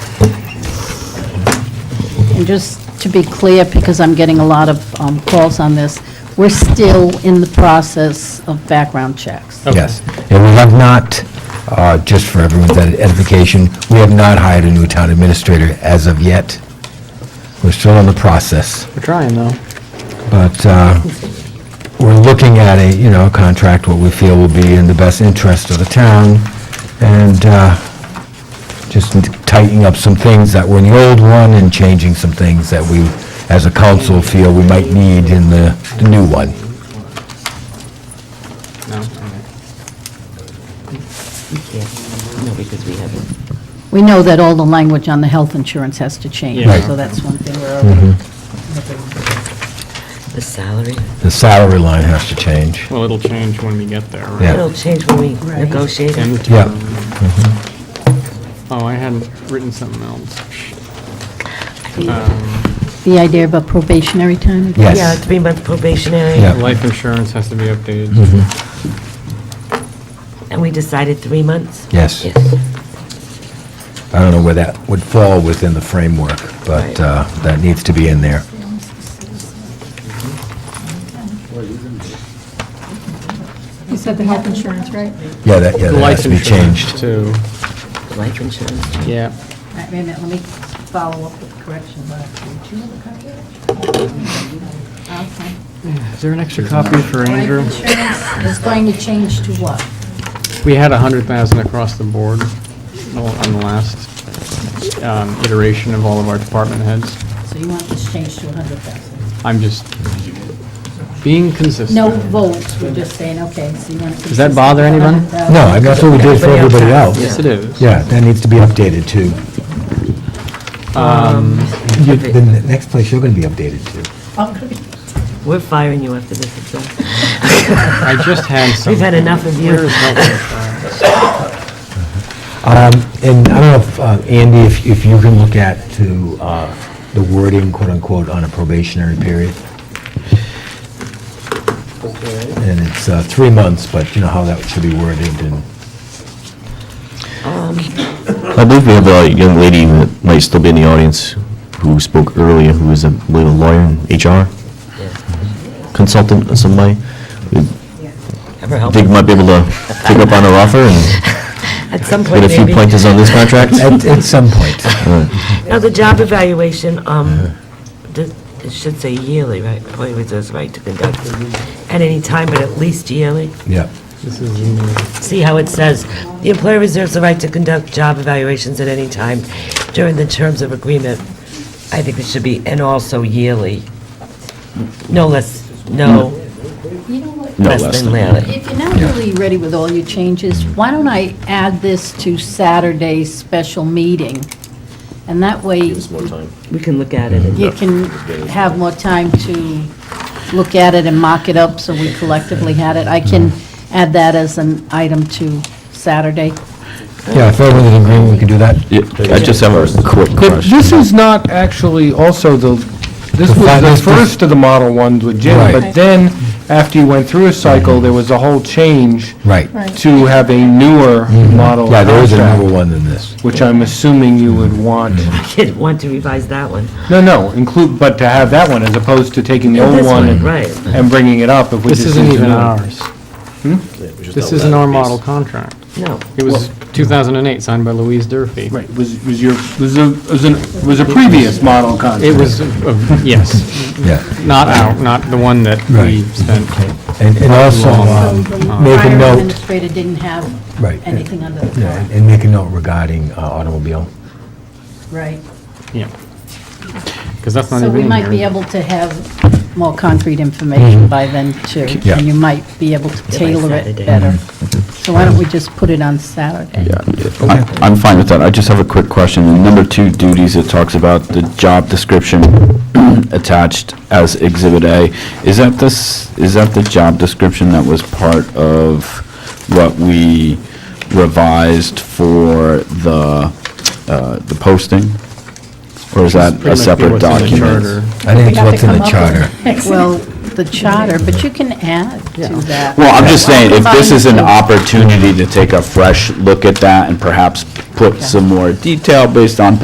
And just to be clear, because I'm getting a lot of um, calls on this, we're still in the process of background checks. Okay. Yes. And we have not, uh, just for everyone's ed- edification, we have not hired a new town administrator as of yet. We're still in the process, We're trying, though. but uh, we're looking at a, you know, contract, what we feel will be in the best interest of the town, and uh, just tightening up some things that were in the old one and changing some things that we, as a council, feel we might need in the the new one. No, because we haven't. We know that all the language on the health insurance has to change, Yeah. Right. so that's one thing we're already looking. The salary, The salary line has to change. Well, it'll change when we get there, right? Yeah. it'll change when we Right. negotiate. And the Yeah. Mm-hmm. term. Oh, I hadn't written something else. Um, The idea about probationary time? again? Yes. Yeah, three-month probationary. Yeah. Mm-hmm. Life insurance has to be updated. And we decided three months? Yes. Yes. I don't know where that would fall within the framework, but Right. uh, that needs to be in there. You said the health insurance, right? Yeah, that, yeah, The that has life to be insurance, changed. Too. Life insurance. Yeah. All right, Wait a minute, let me follow up with correction. Do you have a copy of that? Okay. Is there an extra copy for Andrew? Life insurance is going to change to what? We had a hundred thousand across the board well, on the last um, iteration of all of our department heads. So you want this changed to 100,000? I'm just being consistent. No votes, we're just saying, okay, so you want to... Does that bother anyone? No, I mean, that's what we did for everybody Everybody else. else Yes, it is. Yeah, that needs to be updated too. Um, You- The n- next place you're going to be updated to. We're firing you after this, it's all. I just had some. We've had enough of you. Where is health insurance? Um, And I don't know, if, uh, Andy, if if you can look at to uh, the wording, quote unquote, on a probationary period. And it's uh, three months, but you know how that should be worded and. I believe we have a young lady that might still be in the audience who spoke earlier, who is, I believe, a lawyer in HR consultant in some way. We Ever help? think we might be able to pick up on her offer and At some point, get a few maybe. pointers on this contract. At at some point. Now, the job evaluation, Uh-huh. um, the- it should say yearly, right? Employee reserves right to conduct at any time, but at least yearly. Yeah. This is me. See how it says, "The employer reserves the right to conduct job evaluations at any time during the terms of agreement." I think it should be, and also yearly. No less, no You know what, No less than yearly. if you're not really ready with all your changes, why don't I add this to Saturday's special meeting? And that way, you We can look at it. and- can have more time to look at it and mock it up, so we collectively had it. I can add that as an item to Saturday. Yeah, if everyone's in agreement, we can do that. Yeah, I just have a quick But question. this is not actually also the, this The was finest- the first of the model ones with Jim, Right. but then, after you went through a cycle, there was a whole change Right. to have a newer model Mm-hmm. Yeah, there is a number contract, one than this. which I'm assuming you would want, I didn't want to revise that one. no, no, include, but to have that one as opposed to taking the old This one and- Right. and bringing it up if we This just isn't use the even new one. ours. Hmm? This isn't our model contract. No. It was 2008, signed by Louise Durfee. Right, was, was your, was a, was a, was a previous model It contract. was, uh, yes, Yeah. not out, not the one that we Right. spent. And, and also, um, make a Prior note, administrator didn't have Right. anything under the yeah, car, and make a note regarding uh, automobile. right? Yeah. Because that's not So even we in might be here. able to have more concrete information by then, too. Yeah. And you might be able to tailor it Saturday. better. So why don't we just put it on Saturday? Yeah, I- I'm fine with that. I just have a quick question. In Number two duties, it talks about the job description attached as Exhibit A. Is that this, is that the job description that was part of what we revised for the, uh, the posting? Or is that a Pretty much be separate what's in the document? charter. I think it's have to what's in the come up charter. with- Well, the charter, but you can add to that. Well, I'm just saying, if this is an Combine opportunity to take a fresh look at that and perhaps put some more detail based on